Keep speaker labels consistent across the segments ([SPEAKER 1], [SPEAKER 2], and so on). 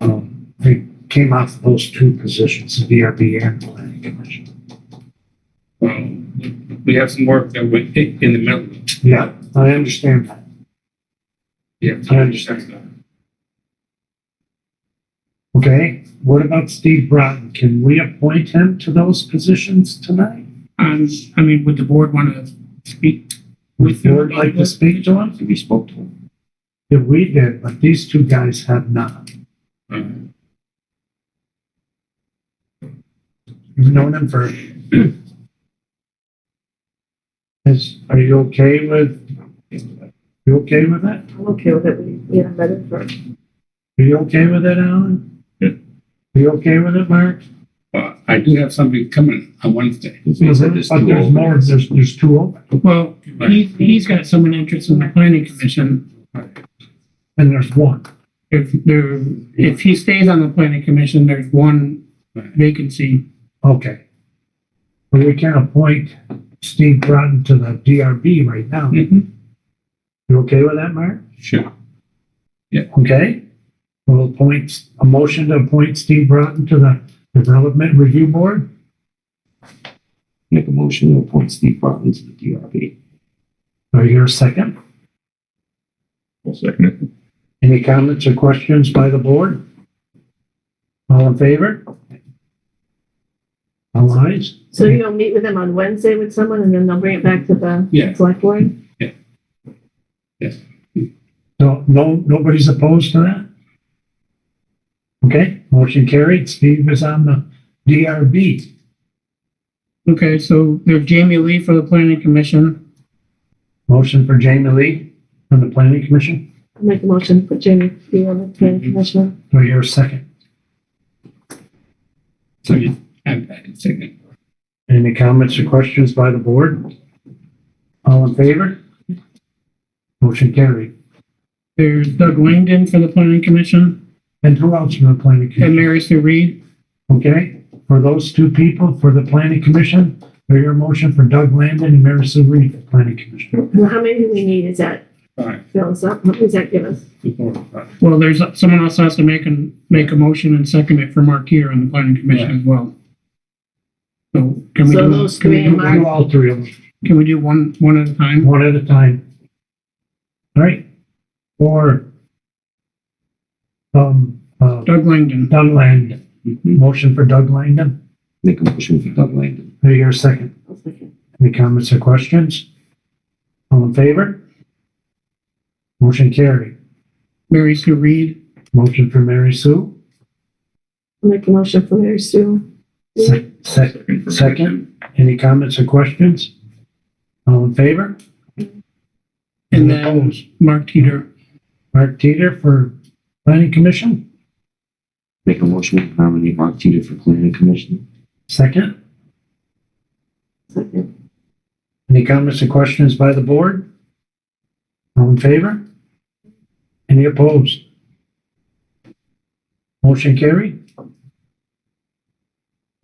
[SPEAKER 1] Um, they came off of those two positions, the VRB and the planning commission.
[SPEAKER 2] Um, we have some work that we, in the middle.
[SPEAKER 1] Yeah, I understand that.
[SPEAKER 2] Yeah.
[SPEAKER 1] I understand. Okay, what about Steve Broughton? Can we appoint him to those positions tonight?
[SPEAKER 2] Um, I mean, would the board want to speak
[SPEAKER 1] Would
[SPEAKER 2] with?
[SPEAKER 1] you like to speak to him?
[SPEAKER 3] We spoke to him.
[SPEAKER 1] Yeah, we did, but these two guys have not.
[SPEAKER 2] him?
[SPEAKER 1] You've known him for. Is, are you okay with, you okay with that?
[SPEAKER 4] I'm okay with it. We, we haven't met him for,
[SPEAKER 1] Are you okay with it, Alan?
[SPEAKER 2] Yeah.
[SPEAKER 1] Are you okay with it, Mark?
[SPEAKER 2] Uh, I do have something coming on Wednesday.
[SPEAKER 3] He said this
[SPEAKER 1] But
[SPEAKER 3] to
[SPEAKER 1] Mm-hmm. Uh, there's
[SPEAKER 3] all-
[SPEAKER 1] more, there's, there's two open,
[SPEAKER 5] Well, he, he's got someone interested in the planning commission.
[SPEAKER 1] and there's one.
[SPEAKER 5] If there, if he stays on the planning commission, there's one vacancy.
[SPEAKER 1] Okay. But we can appoint Steve Broughton to the DRB right now.
[SPEAKER 2] Mm. Mm-hmm.
[SPEAKER 5] Mhm.
[SPEAKER 1] You okay with that, Mark?
[SPEAKER 2] Sure.
[SPEAKER 1] Okay? We'll appoint, a motion to appoint Steve Broughton to the Development Review Board.
[SPEAKER 3] Make a motion to appoint Steve Barton to the DRB.
[SPEAKER 1] Do I hear a second?
[SPEAKER 6] I'll second it.
[SPEAKER 1] Any comments or questions by the board? All in favor? All ayes?
[SPEAKER 4] so you'll meet with him on Wednesday with someone and then they'll bring it back to the
[SPEAKER 2] Yeah,
[SPEAKER 4] select board?
[SPEAKER 1] No, no, nobody's opposed to that? Okay, motion carried. Steve is on the DRB.
[SPEAKER 5] Okay, so there's Jamie Lee for the planning commission.
[SPEAKER 1] Motion for Jamie Lee from the Planning Commission.
[SPEAKER 4] I'll Make a motion for Jamie to be on the planning
[SPEAKER 5] Mm-hmm.
[SPEAKER 4] commission.
[SPEAKER 1] Do I hear a second?
[SPEAKER 2] so you, I, I can say that.
[SPEAKER 1] Any comments or questions by the board? All in favor? Motion carried.
[SPEAKER 5] There's Doug Langdon for the planning commission
[SPEAKER 1] And who else from the Planning
[SPEAKER 5] and
[SPEAKER 1] Commission?
[SPEAKER 5] Mary Sue Reed.
[SPEAKER 1] Okay, for those two people, for the Planning Commission, do I hear a motion for Doug Landon and Mary Sue Reed, for the Planning Commission?
[SPEAKER 4] Well, how many do we need? Is that,
[SPEAKER 2] Five,
[SPEAKER 4] fill us up? What does that give us?
[SPEAKER 2] four, five.
[SPEAKER 5] Well, there's, someone else has to make an, make a motion and second it for Mark here on the planning commission as well. So can we
[SPEAKER 4] So
[SPEAKER 5] do,
[SPEAKER 4] those
[SPEAKER 5] can we
[SPEAKER 4] three and
[SPEAKER 5] do,
[SPEAKER 4] Mark.
[SPEAKER 1] Do all three of them.
[SPEAKER 5] can we do one, one at a time?
[SPEAKER 1] one at a time. All right, or, um, uh,
[SPEAKER 5] Doug Langdon.
[SPEAKER 1] Doug Langdon,
[SPEAKER 2] Mhm.
[SPEAKER 1] motion for Doug Langdon,
[SPEAKER 3] Mm-hmm. Make a motion for Doug Langdon.
[SPEAKER 1] do I hear a second?
[SPEAKER 4] I'll second.
[SPEAKER 1] Any comments or questions? All in favor? Motion carried,
[SPEAKER 5] Mary Sue Reed.
[SPEAKER 1] motion for Mary Sue,
[SPEAKER 4] I'll Make a motion for Mary Sue.
[SPEAKER 1] Se- se-
[SPEAKER 6] Second. for Mary Sue.
[SPEAKER 1] second, any comments or questions? All in favor? Any
[SPEAKER 5] And then-
[SPEAKER 1] opposed?
[SPEAKER 5] Mark Teeter.
[SPEAKER 1] Mark Teeter for planning commission,
[SPEAKER 3] Make a motion to nominate Mark Teeter for planning commission.
[SPEAKER 1] second?
[SPEAKER 4] Second.
[SPEAKER 1] Any comments or questions by the board? All in favor? Any opposed? Motion carried.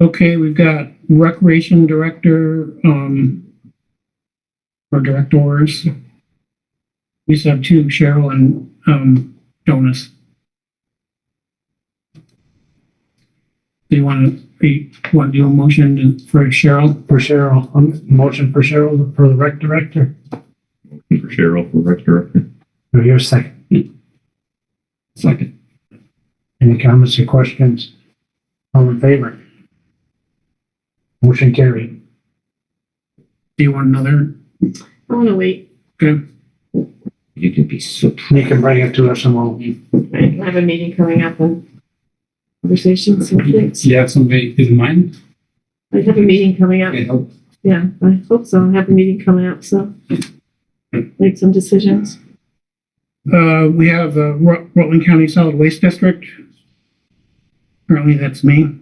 [SPEAKER 5] Okay, we've got Recreation Director, um, or Directors. We just have two, Cheryl and, um, Jonas. Do you want to, want to do a motion to- for Cheryl?
[SPEAKER 1] For Cheryl, um, motion for Cheryl for the rec director.
[SPEAKER 6] And For Cheryl, for rec director.
[SPEAKER 1] Do I hear a second?
[SPEAKER 3] Second.
[SPEAKER 1] Any comments or questions? All in favor? Motion carried.
[SPEAKER 5] Do you want another?
[SPEAKER 4] I want to wait.
[SPEAKER 5] Okay,
[SPEAKER 3] You can be so.
[SPEAKER 1] You can bring it to us and we'll,
[SPEAKER 4] Right, I have a meeting coming up and conversations
[SPEAKER 5] Mm-hmm.
[SPEAKER 4] with kids.
[SPEAKER 2] Do you have somebody in mind?
[SPEAKER 4] I have a meeting coming up.
[SPEAKER 2] Okay, help.
[SPEAKER 4] Yeah, I hope so. I have a meeting coming up, so make some decisions.
[SPEAKER 5] uh, we have the Rut- Rutland County Solid Waste District. Currently, that's me.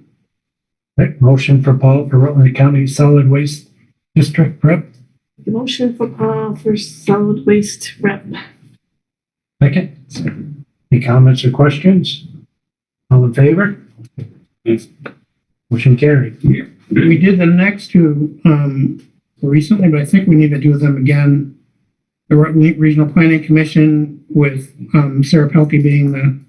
[SPEAKER 1] right, motion for Paul for Rutland County Solid Waste District Rep.
[SPEAKER 4] The Motion for Paul for solid waste rep.
[SPEAKER 1] Second. Any comments or questions? All in favor?
[SPEAKER 2] Yes.
[SPEAKER 1] Motion carried.
[SPEAKER 5] We did the next two um, recently, but I think we need to do them again. The Rutland Regional Planning Commission with um, Sarah Pelkey being the